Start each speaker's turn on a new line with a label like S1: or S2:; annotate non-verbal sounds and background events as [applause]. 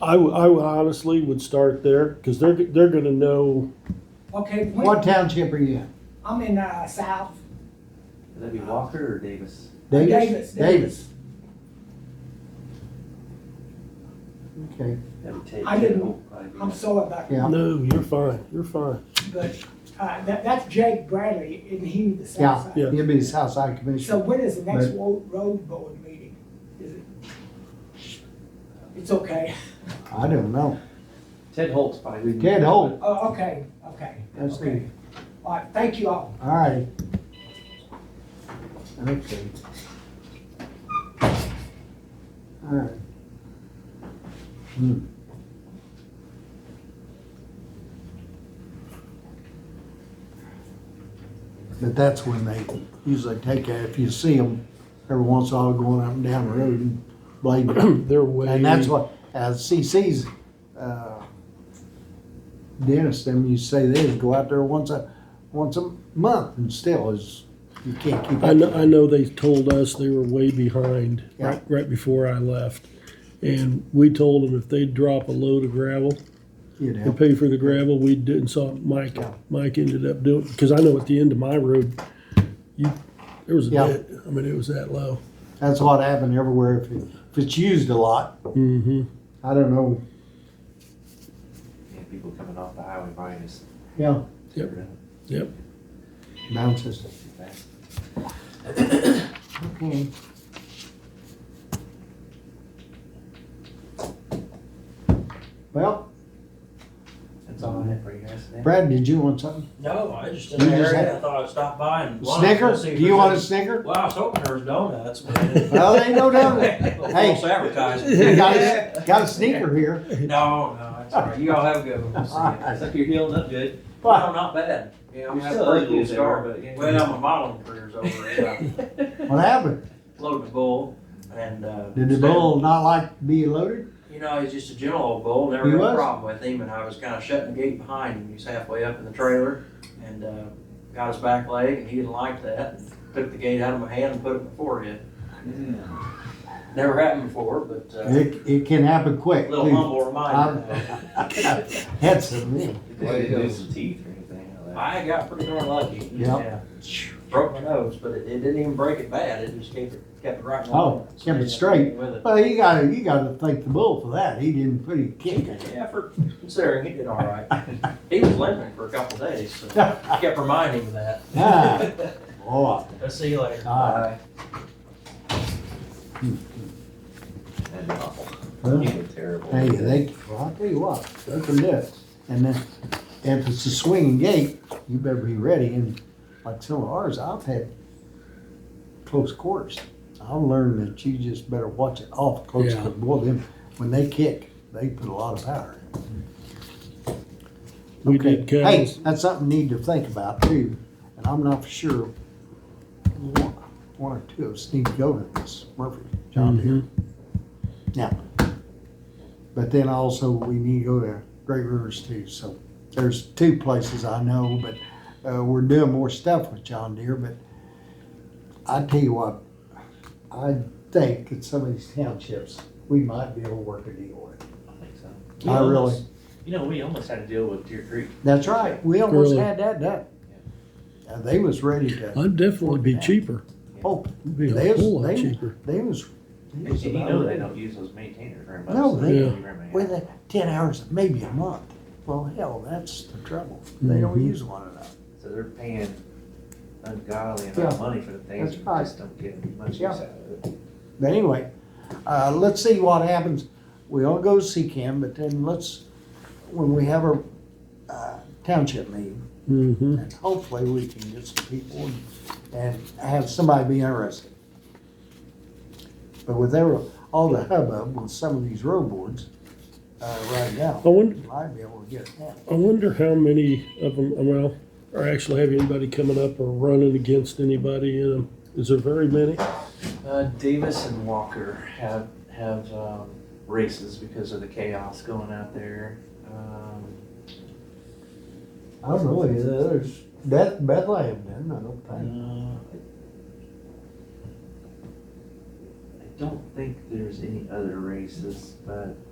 S1: I, w- I would honestly would start there, because they're, they're gonna know,
S2: Okay, when-
S3: What township are you in?
S2: I'm in, uh, South
S4: Would that be Walker or Davis?
S2: Davis,
S3: Davis. Okay,
S4: That would take.
S2: I didn't-
S4: oh, probably be-
S2: I'm sorry about that,
S3: yeah,
S1: no, you're fine, you're fine. [clears throat]
S2: but, uh, that, that's Jake Bradley, and he the
S3: Yeah.
S2: south side.
S1: Yeah.
S3: he'll be the Southside
S2: So
S3: Commissioner.
S2: when is the next
S3: Right.
S2: wo- road board meeting? Is it? It's okay.
S3: I don't know.
S4: Ted Holt's probably.
S3: Ted Holt,
S2: Oh, okay, okay,
S3: that's
S2: okay.
S3: me.
S2: All right, thank you all.
S3: All right. Okay. All right. Hmm. But that's when they usually take, a- if you see them, every once in a while going up and down the road and blading.
S1: They're way.
S3: And that's what, uh, CC's, uh, dentist, them used to say they would go out there once a, once a month and still is, you can't keep
S1: I know, I
S3: up.
S1: know they told us they were way behind,
S3: Yeah.
S1: right, right before I left. And we told them if they'd drop a load of gravel
S3: You
S1: and
S3: know,
S1: pay for the gravel, we didn't, so Mike, Mike ended up doing, because I know at the end of my road, you, there was a
S3: Yeah.
S1: dent, I mean, it was that low.
S3: that's what happened everywhere if it, if it's used a lot.
S1: Mm-hmm,
S3: I don't know,
S4: Yeah, people coming off the highway buying us.
S3: yeah,
S1: Yep. yep.
S3: bounces.
S4: Okay.
S3: Okay. Well,
S4: That's all I have for you guys today.
S3: Brad, did you want something?
S5: No, I just
S3: You
S5: didn't
S3: just
S5: hear
S3: had-
S5: it. I thought I'd stop by and. lunch,
S3: Snicker?
S5: see if
S3: Do you
S5: there's
S3: want a
S5: any-
S3: snicker?
S5: Well, I was hoping there was donuts, but.
S3: [laughs] Well, there ain't
S5: [laughs]
S3: no doubt. Hey.
S5: False
S3: You
S5: advertising.
S3: got a, got a sneaker here.
S5: [laughs] No, no, it's all right. You all have a good one. We'll see you.
S4: Except you're healing up good.
S5: No, not bad.
S4: Yeah,
S5: I'm
S4: I'm
S5: still
S4: still a
S5: ugly
S4: little
S5: as they
S4: scar,
S5: are.
S4: but yeah.
S5: Well, my modeling career's over. I
S3: [laughs] What happened?
S5: Loaded a bull and, uh.
S3: Did the bull not like to be loaded?
S5: You know, he's just a gentle old bull, never
S3: He
S5: had
S3: was?
S5: a problem with him, and I was kind of shutting the gate behind him. He was halfway up in the trailer and uh, got his back leg, and he didn't like that. Took the gate out of my hand and put it in my forehead. Never happened before, but uh,
S3: It, it can happen
S5: a
S3: quick.
S5: little
S3: too.
S5: humble reminder.
S3: [laughs] That's the
S4: Did they lose some teeth or anything? like that?
S5: I got pretty darn lucky.
S3: Yeah.
S5: Broke my nose, but it, it didn't even break it bad. It just kept it, kept it right. in
S3: Oh,
S5: line.
S3: kept it straight.
S5: With it.
S3: Well, you gotta, you gotta thank the bull for that. He didn't put a kick in
S5: [laughs]
S3: it.
S5: Yeah, for considering he did all right. he was limping for a couple days,
S3: [laughs]
S5: so I kept reminding him of
S3: Ah,
S5: that.
S3: boy.
S5: Let's see you later.
S3: Ah.
S4: That'd be awful.
S3: Well,
S4: You were terrible.
S3: Hey, they, well, I'll tell you what, open this. And then, if it's a swinging gate, you better be ready. And like some of ours, I've had close quarters. I've learned that you just better watch it off close.
S1: Yeah.
S3: Boy, them, when they kick, they put a lot of power in.
S1: We
S3: Okay.
S1: did
S3: Hey,
S1: cows.
S3: that's something you need to think about too, and I'm not for sure. One one or two of us need to go to this Murphy job
S1: Mm-hmm.
S3: here. Now, but then also we need to go to Great Rivers too, so there's two places I know, but, uh, we're doing more stuff with John Deere, but I tell you what, I think that some of these townships, we might be able to work a deal with.
S4: I think so.
S3: I
S4: We
S3: really-
S4: almost- You know, we almost had to deal with Deer Creek.
S3: That's right, we almost
S1: Really?
S3: had that done. Uh, they was ready to.
S1: I'd definitely be cheaper,
S3: Oh,
S1: be
S3: They
S1: a
S3: was-
S1: whole lot
S3: they-
S1: cheaper.
S3: they was. they
S4: And
S3: was
S4: you
S3: about
S4: know they
S3: ready.
S4: don't use those maintainers very much.
S3: No,
S4: so
S3: they-
S4: they don't very many.
S3: With the ten hours, maybe a month. Well, hell, that's the trouble. They don't
S1: Mhm.
S3: use one enough.
S4: So they're paying ungodly amount
S3: Yeah,
S4: of money for the
S3: that's
S4: things, and
S3: right.
S4: just don't get much use
S3: Yeah.
S4: out of it.
S3: But anyway, uh, let's see what happens. We all go to CCAM, but then let's, when we have our, uh, township meeting,
S1: Mm-hmm,
S3: and hopefully we can get some people and- and have somebody be interested. But with every, all the hubbub with some of these road boards, uh, right now,
S1: I wonder-
S3: we might be able to get that.
S1: I wonder how many of them, well, are actually have anybody coming up or running against anybody in them. Is there very many?
S4: Uh, Davis and Walker have have um, races because of the chaos going out there. Um,
S3: I don't know, any of the others. Beth, Bethlehem didn't, I don't
S4: uh,
S3: think.
S4: I don't think there's any other races, but